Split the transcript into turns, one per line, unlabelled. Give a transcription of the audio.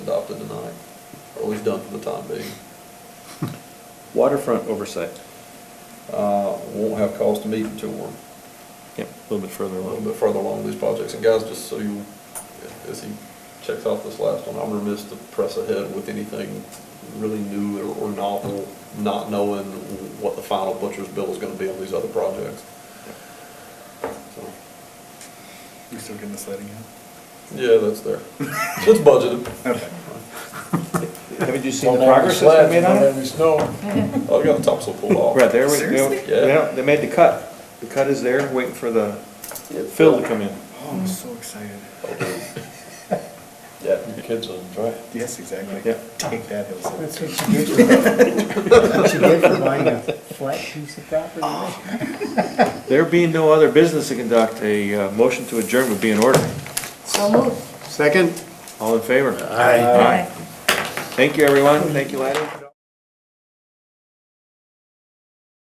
always done for the time being.
Waterfront oversight,
Uh, Won't have cost to meet until we're
yep, a little bit further
a little
along.
bit further along these projects. And guys, just so you, as he checks off this last one, I'm remiss to press ahead with anything really new or- or novel, not knowing what the final butcher's bill is gonna be on these other projects. So,
You still getting this lighting out?
Yeah, that's there. It's budgeted.
Okay.
Haven't you seen the progress that's been made on it?
I've got the topsoil pulled off.
Right, there, we go.
Seriously?
Yeah.
Yeah, they made the cut, the cut is there, waiting for the fill to come in.
Oh, I'm so excited.
Okay.
Yeah, your kids will enjoy it.
Yes, exactly.
Yeah.
Take that, Hillside.
That's what you get for, what you get for buying a flat piece of property.
There being no other business to conduct, a uh, motion to adjourn would be in order.
So moved.
All in favor?
Aye.
Thank you, everyone, thank you, Laddie.